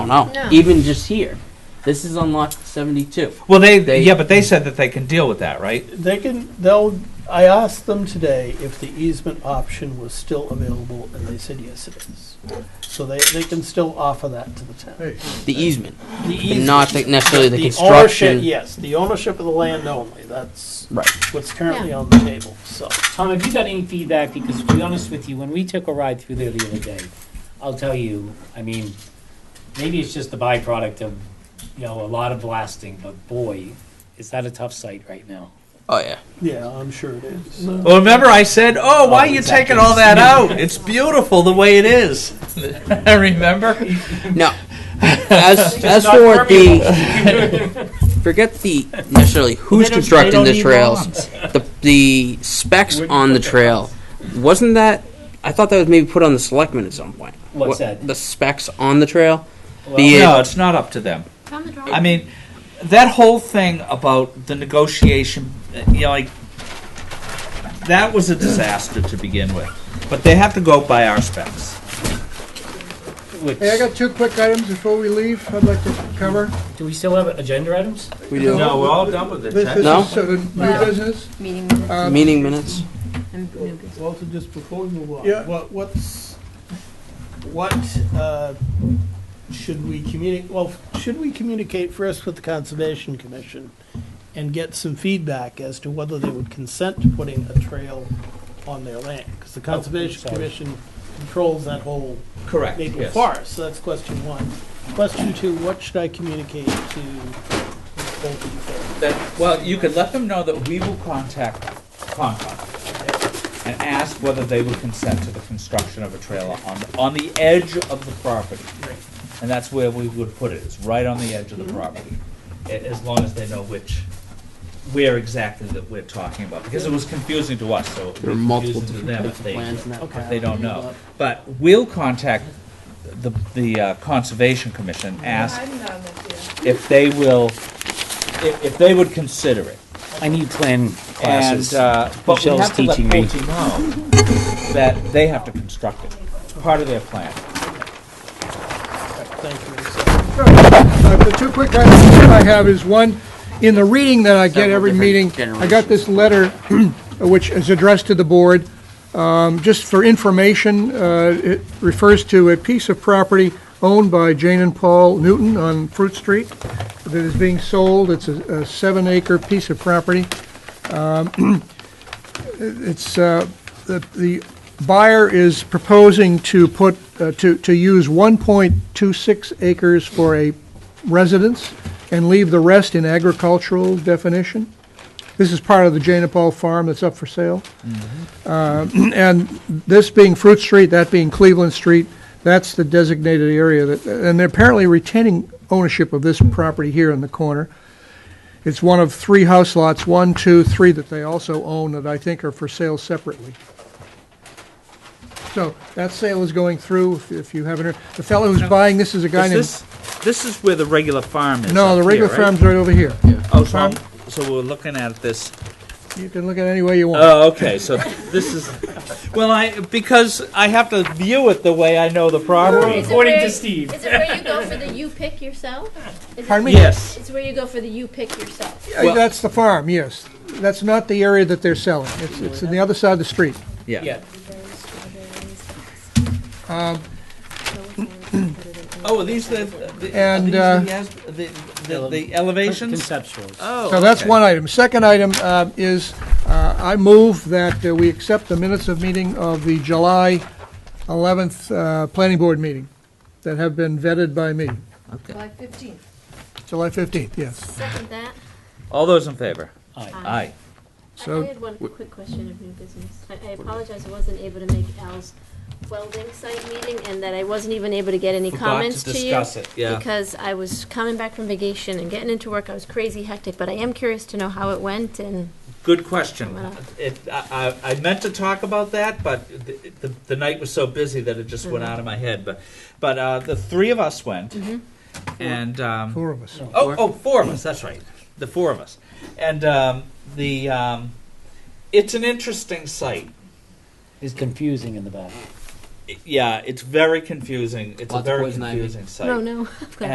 don't know. No. Even just here, this is unlocked 72. Well, they, They- yeah, but they said that they can deal with that, right? They can, they'll, I asked them today if the easement option was still available, and they said, yes, it is. So they, they can still offer that to the town. Hey, The easement, The but not easement- necessarily the, ownership- construction. Yes, the ownership of the land only, that's Right. what's currently on the table, so. Tom, have you got any feedback? Because to be honest with you, when we took a ride through there the other day, I'll tell you, I mean, maybe it's just the byproduct of, you know, a lot of blasting, but boy, is that a tough site right now. Oh yeah. Yeah, I'm sure it is. Well, remember I said, "Oh, why are Oh, you exactly. taking all that out? It's beautiful the way it is." remember? No. As as for the forget the necessarily who's don't- they constructing don't the need trails, the the specs on the trail. Wasn't that? I thought that was maybe put on the selectmen at some point. What's What- that? The specs on the trail. Well, the- No, it's not up to them. Found the drawing. I mean, that whole thing about the negotiation, uh, you know, like that was a disaster to begin with. But they have to go by our specs. which- I got two quick items before we leave I'd like to cover. do we still have agenda items? We do. No, we're all done with This this No? is sort of new No. business. Meeting minutes Um, Meeting minutes. and new business. Walter, just before we move Yeah. on, what, what's, what, uh, should we communicate, well, should we communicate first with the Conservation Commission and get some feedback as to whether they would consent to putting a trail on their land? Because the Conservation sorry. Commission controls that whole Correct. Maple yes. Forest, so that's question one. Question two, what should I communicate to both of you? That, well, you could let them know that we will contact Concom and ask whether they would consent to the construction of a trailer on, on the edge of the property. And that's where we would put it, it's right on the edge of the property, a- as long as they know which, where exactly that we're talking about, because it was confusing to us, so it There are would be multiple confusing to them if they, plans in that Okay. pile. they don't know. But we'll contact the, the uh, Conservation Commission, ask if they will, if, if they would consider it. I need plan classes. And, uh, but we Michelle's have to let teaching me. Pulte know that they have to construct it. It's part of their plan. Thank you. Uh, The two quick items I have is one, in the reading that I get Several every different meeting, I got this letter which is addressed to the board. Um, Just for information, uh, it refers to a piece of property owned by Jane and Paul Newton on Fruit Street that is being sold. It's a a seven-acre piece of property. Um, It's, uh, the the buyer is proposing to put, uh, to to use 1.26 acres for a residence and leave the rest in agricultural definition. This is part of the Jane and Paul Farm that's up for sale. Mm-hmm. Uh, And this being Fruit Street, that being Cleveland Street, that's the designated area that, and they're apparently retaining ownership of this property here in the corner. It's one of three house lots, one, two, three, that they also own that I think are for sale separately. So that sale is going through, if- if you haven't heard. The fellow who's buying this is a guy Is named... this, this is where the regular farm is No, up the here, regular right? farm's right over here. Oh, so, so we're looking at this, You can look at it any way you want. oh, okay, so this is, well, I, because I have to view it the way I know the property. Is it According where- to Steve. Is it where you go for the you pick yourself? Is it- Pardon me? Yes, It's where you go for the you pick yourself. Uh, well- That's the farm, yes. That's not the area that they're selling. It's, it's on the other side of the street. yeah. Um, Oh, are these the, the- are And, these uh, the as- the, the, the elevations? Conceptuals. Oh, So that's okay. one item. Second item uh, is, uh, I move that uh, we accept the minutes of meeting of the July 11th uh, Planning Board meeting that have been vetted by me. July 15th. July 15th, yes. Second that. um, All those in favor? Aye. Aye. I I So, had one quick question of new business. I- I apologize, I wasn't able to make Al's welding site meeting and that I wasn't even able to get any Forgot to comments to you. discuss it, yeah. Because I was coming back from vacation and getting into work. I was crazy hectic, but I am curious to know how it went and Good question. Wow. It, I, I I meant to talk about that, but the, the, the night was so busy that it just went Mm-hmm. out of my head. But, but uh, the three of us went, Mm-hmm. and um, four of us. oh, oh, four of us. That's right, the four of us, and um, the um, it's an interesting site. It's confusing in the back. It- yeah, it's very confusing. It's Lots of a very poison ivy. confusing site. Oh, no. I've got